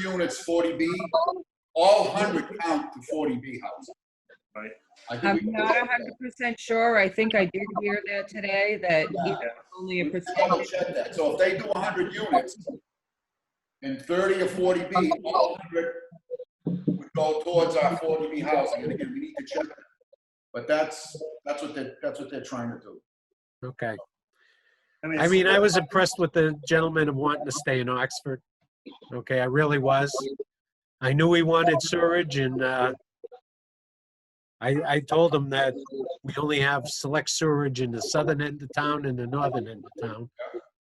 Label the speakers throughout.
Speaker 1: units forty B, all hundred count to forty B housing.
Speaker 2: Right.
Speaker 1: I think
Speaker 3: I'm
Speaker 1: we-
Speaker 3: not hundred percent sure. I think I did hear that today, that
Speaker 1: Yeah.
Speaker 3: even only a
Speaker 1: We double
Speaker 3: percentage.
Speaker 1: check that. So if they do hundred units and thirty or forty B, all hundred would go towards our forty B housing. And again, we need to check that. But that's, that's what they're, that's what they're trying to do.
Speaker 4: Okay. I
Speaker 2: it's-
Speaker 4: mean, I was impressed with the gentleman of wanting to stay in Oxford. Okay, I really was. I knew he wanted sewerage and, uh, I, I told him that we only have select sewerage in the southern end of town and the northern end of town.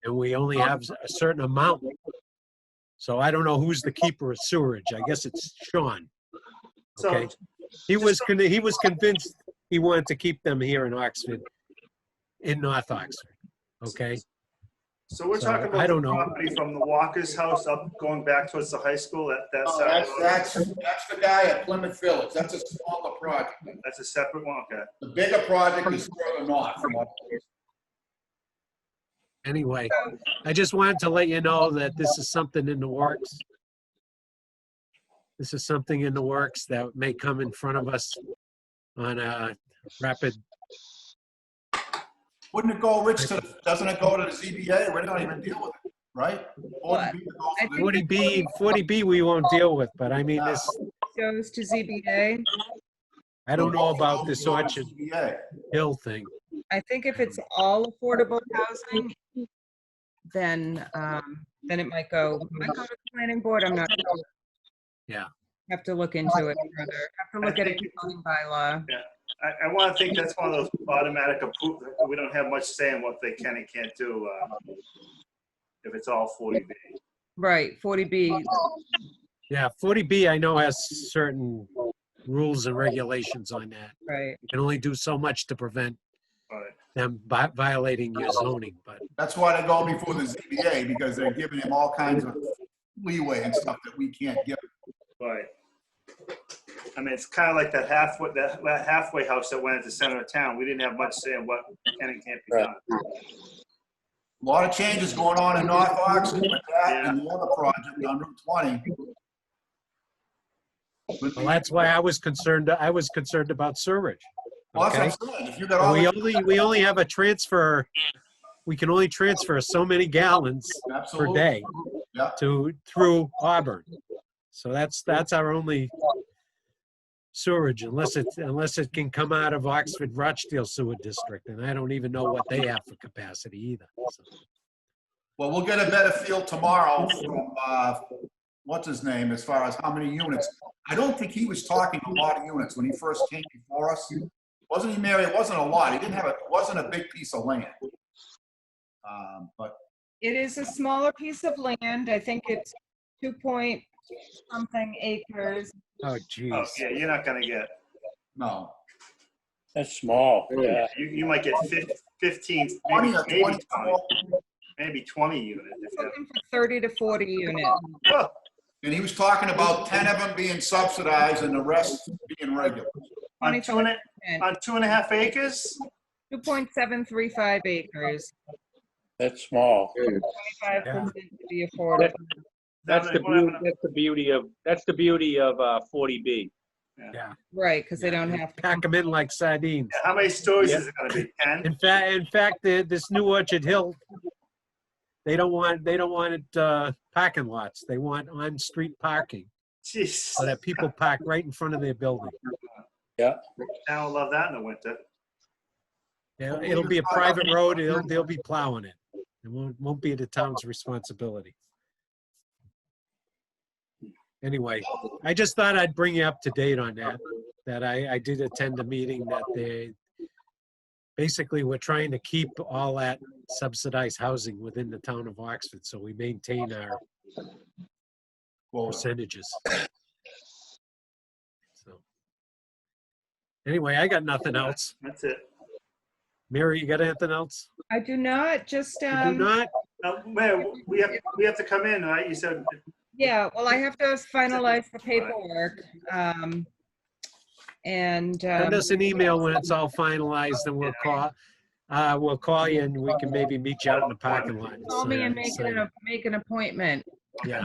Speaker 4: And we only have a certain amount. So I don't know who's the keeper of sewerage. I guess it's Sean.
Speaker 2: So-
Speaker 4: okay. He was, con- he was convinced he wanted to keep them here in Oxford, in North Oxford. Okay?
Speaker 2: So we're
Speaker 4: So,
Speaker 2: talking about.
Speaker 4: I don't
Speaker 2: the
Speaker 4: know.
Speaker 2: Property from the Walker's house up, going back towards the high school, that, that's.
Speaker 1: Oh, That's, that's, that's the guy at Plymouth Village. That's a smaller project.
Speaker 2: That's a separate one, okay.
Speaker 1: The bigger project is further north. from what-
Speaker 4: anyway, I just wanted to let you know that this is something in the works. This is something in the works that may come in front of us on a rapid,
Speaker 1: Wouldn't it go, Rich, to, doesn't it go to the ZBA? We're not even deal with it, right?
Speaker 3: What?
Speaker 1: 40B goes
Speaker 3: I
Speaker 1: to the-
Speaker 4: 40B, 40B we won't deal with, but I mean, this,
Speaker 3: Goes to ZBA.
Speaker 4: I don't know about this Orchard
Speaker 1: ZBA.
Speaker 4: Hill thing.
Speaker 3: I think if it's all affordable housing, then, um, then it might go, might go to the planning board. I'm not sure.
Speaker 4: Yeah.
Speaker 3: Have to look into it further. Have to look at a zoning bylaw.
Speaker 2: I, I want to think that's one of those automatic approval, we don't have much say in what they can and can't do, uh, if it's all 40B.
Speaker 3: Right, forty B.
Speaker 4: Yeah, 40B I know has certain rules and regulations on that.
Speaker 3: Right.
Speaker 4: You can only do so much to prevent
Speaker 2: All right.
Speaker 4: them vi- violating your zoning, but
Speaker 1: That's why they go before the ZBA, because they're giving them all kinds of leeway and stuff that we can't give.
Speaker 2: Right. I mean, it's kind of like that halfway, that that halfway house that went at the center of town. We didn't have much say in what can and can't be done.
Speaker 1: A Lot of changes going on in North Oxford with that and the other project on Route 20. But-
Speaker 4: well, that's why I was concerned, I was concerned about sewerage.
Speaker 1: Well, that's
Speaker 4: okay?
Speaker 1: what I'm saying. If you got all.
Speaker 4: And We
Speaker 1: the-
Speaker 4: only, we only have a transfer, we can only transfer so many gallons per
Speaker 1: Absolutely.
Speaker 4: day
Speaker 1: Yeah.
Speaker 4: to, through Auburn. So that's, that's our only sewerage unless it, unless it can come out of Oxford Rochdale Sewer District. And I don't even know what they have for capacity either. So,
Speaker 1: Well, we'll get a better feel tomorrow from, uh, what's his name, as far as how many units. I don't think he was talking a lot of units when he first came before us. Wasn't he, Mary? It wasn't a lot. He didn't have, a. it wasn't a big piece of land. Um, But
Speaker 3: It is a smaller piece of land. I think it's two point something acres.
Speaker 4: Oh,
Speaker 2: Oh,
Speaker 4: jeez.
Speaker 2: yeah, you're not gonna get,
Speaker 1: no,
Speaker 5: That's small, yeah.
Speaker 2: you, you might get fif- fifteen,
Speaker 1: 20
Speaker 2: maybe
Speaker 1: or
Speaker 2: maybe
Speaker 1: 20.
Speaker 2: twenty, maybe twenty units. if you have-
Speaker 3: Looking for thirty to forty units.
Speaker 2: Well,
Speaker 1: And he was talking about 10 of them being subsidized and the rest being regular.
Speaker 2: On two and, a- on two and a half acres?
Speaker 3: Two point seven three five acres,
Speaker 5: That's small.
Speaker 3: twenty-five percent to be affordable.
Speaker 6: That's the
Speaker 2: What happened
Speaker 6: beauty, that's the beauty of, that's the beauty of uh, 40B.
Speaker 3: Right, because they don't have, to.
Speaker 4: Pack them in like sardines.
Speaker 2: How many stories is it gonna be? Ten?
Speaker 4: In fact, in fact, the- this new Orchard Hill, they don't want, they don't want it, uh, parking lots. They want on-street parking.
Speaker 2: Jeez,
Speaker 4: so that people park right in front of their building.
Speaker 2: I would love that in the winter.
Speaker 4: It'll it'll be a private road, it'll, they'll be plowing it. It won't, won't be the town's responsibility. Anyway, I just thought I'd bring you up to date on that, that I, I did attend a meeting that they, basically, we're trying to keep all that subsidized housing within the town of Oxford, so we maintain our
Speaker 1: Well,
Speaker 4: percentages. So Anyway, I got nothing else.
Speaker 2: That's it.
Speaker 4: Mary, you got anything else?
Speaker 3: I do not, just,
Speaker 4: You do
Speaker 3: um,
Speaker 4: not?
Speaker 2: Now, where, we have, we have to come in, right? You said,
Speaker 3: yeah, well, I have to finalize the paperwork. um, And, um,
Speaker 4: Send us an email when it's all finalized and we'll call, uh, we'll call you and we can maybe meet you out in the parking lot.
Speaker 3: call me and make an, make an appointment.
Speaker 4: Yeah.